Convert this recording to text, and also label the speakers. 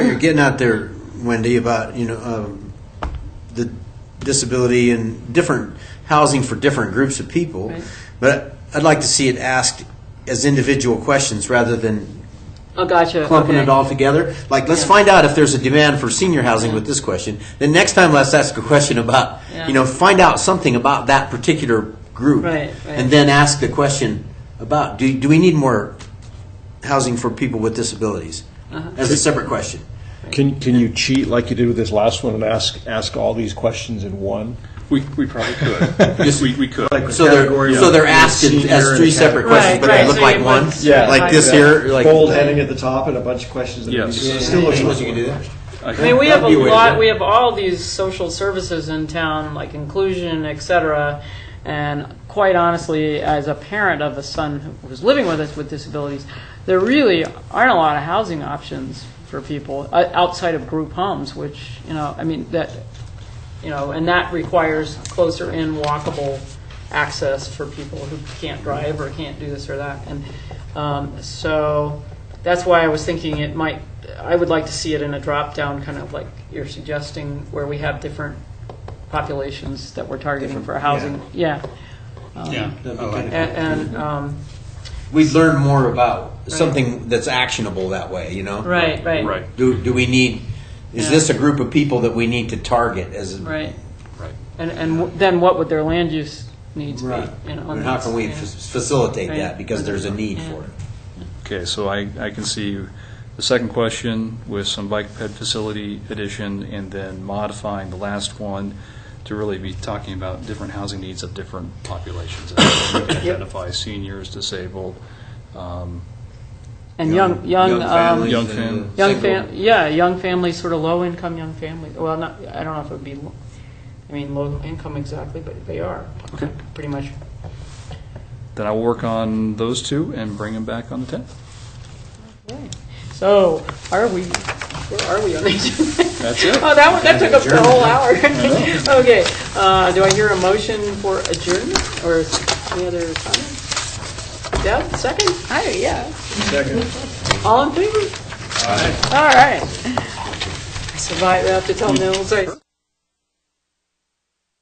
Speaker 1: getting out there, Wendy, about you know um, the disability and different housing for different groups of people.
Speaker 2: Right.
Speaker 1: But I'd like to see it asked as individual questions rather than
Speaker 2: Oh, gotcha.
Speaker 1: clumping
Speaker 2: okay.
Speaker 1: it all together. Like, let's
Speaker 2: Yeah.
Speaker 1: find out if there's a demand for senior housing
Speaker 2: Yeah.
Speaker 1: with this question. Then next time, let's ask a question about
Speaker 2: Yeah.
Speaker 1: you know find out something about that particular group,
Speaker 2: Right, right.
Speaker 1: and then ask the question about do do we need more housing for people with disabilities
Speaker 2: Uh-huh.
Speaker 1: as a separate question.
Speaker 3: Can, can you cheat like you did with this last one and ask, ask all these questions in one?
Speaker 4: We, we probably could. we, we could.
Speaker 1: So they're,
Speaker 5: category
Speaker 1: so
Speaker 5: of
Speaker 1: they're asked in-
Speaker 5: senior
Speaker 1: as
Speaker 5: and
Speaker 1: three
Speaker 5: a
Speaker 1: separate
Speaker 5: category.
Speaker 1: questions,
Speaker 2: Right,
Speaker 1: but they
Speaker 2: right,
Speaker 1: look
Speaker 2: so
Speaker 1: like
Speaker 2: you
Speaker 1: one?
Speaker 2: want- Yeah.
Speaker 1: Like this
Speaker 2: Yeah.
Speaker 1: here, like.
Speaker 5: Bold heading at the top and a bunch of questions. at the
Speaker 4: Yes.
Speaker 5: beginning.
Speaker 4: Yeah.
Speaker 5: It still looks
Speaker 1: Suppose
Speaker 5: like
Speaker 1: you could do that?
Speaker 4: I
Speaker 2: I mean, we have a
Speaker 1: That'd be a way to do
Speaker 2: lot.
Speaker 1: it.
Speaker 2: We have all these social services in town, like inclusion, etc. And quite honestly, as a parent of a son who was living with us with disabilities, there really aren't a lot of housing options for people uh, outside of group homes. Which you know, I mean that you know, and that requires closer in walkable access for people who can't drive or can't do this or that. And um, so that's why I was thinking it might, I would like to see it in a drop down, kind of like you're suggesting, where we have different populations that we're targeting for housing. Yeah.
Speaker 4: Yeah.
Speaker 2: A- And, um,
Speaker 1: We'd learn more about
Speaker 2: Right.
Speaker 1: something that's actionable that way, you know?
Speaker 2: right, right.
Speaker 4: Right,
Speaker 1: Do, do we need, is
Speaker 2: Yeah.
Speaker 1: this a group of people that we need to target as?
Speaker 2: Right.
Speaker 4: right.
Speaker 2: And, and w- then what would their land use needs be?
Speaker 1: Right.
Speaker 2: you know,
Speaker 1: And how can we
Speaker 2: yeah.
Speaker 1: f- facilitate
Speaker 2: Right.
Speaker 1: that because there's a need
Speaker 2: Yeah.
Speaker 1: for it?
Speaker 4: Okay, so I, I can see the second question with some bike ped facility addition and then modifying the last one to really be talking about different housing needs of different populations. Identify seniors, disabled, um,
Speaker 2: And young, young, um,
Speaker 4: young fam-
Speaker 2: Young
Speaker 1: single.
Speaker 2: fam, yeah, young families, sort of low-income young families, well, not, I don't know if it would be, lo- I mean, low-income exactly, but they are, pretty much.
Speaker 4: then I'll work on those two and bring them back on the 10th.
Speaker 2: So, are we, where are we on the agenda?
Speaker 4: That's it.
Speaker 2: Oh, that one, that took up the whole hour. Okay, uh, do I hear a motion for adjournment, or any other comments? Deb, second? Hi, yeah.
Speaker 5: Second.
Speaker 2: All in favor? All right. All right. I survived, I have to tell Mills, I.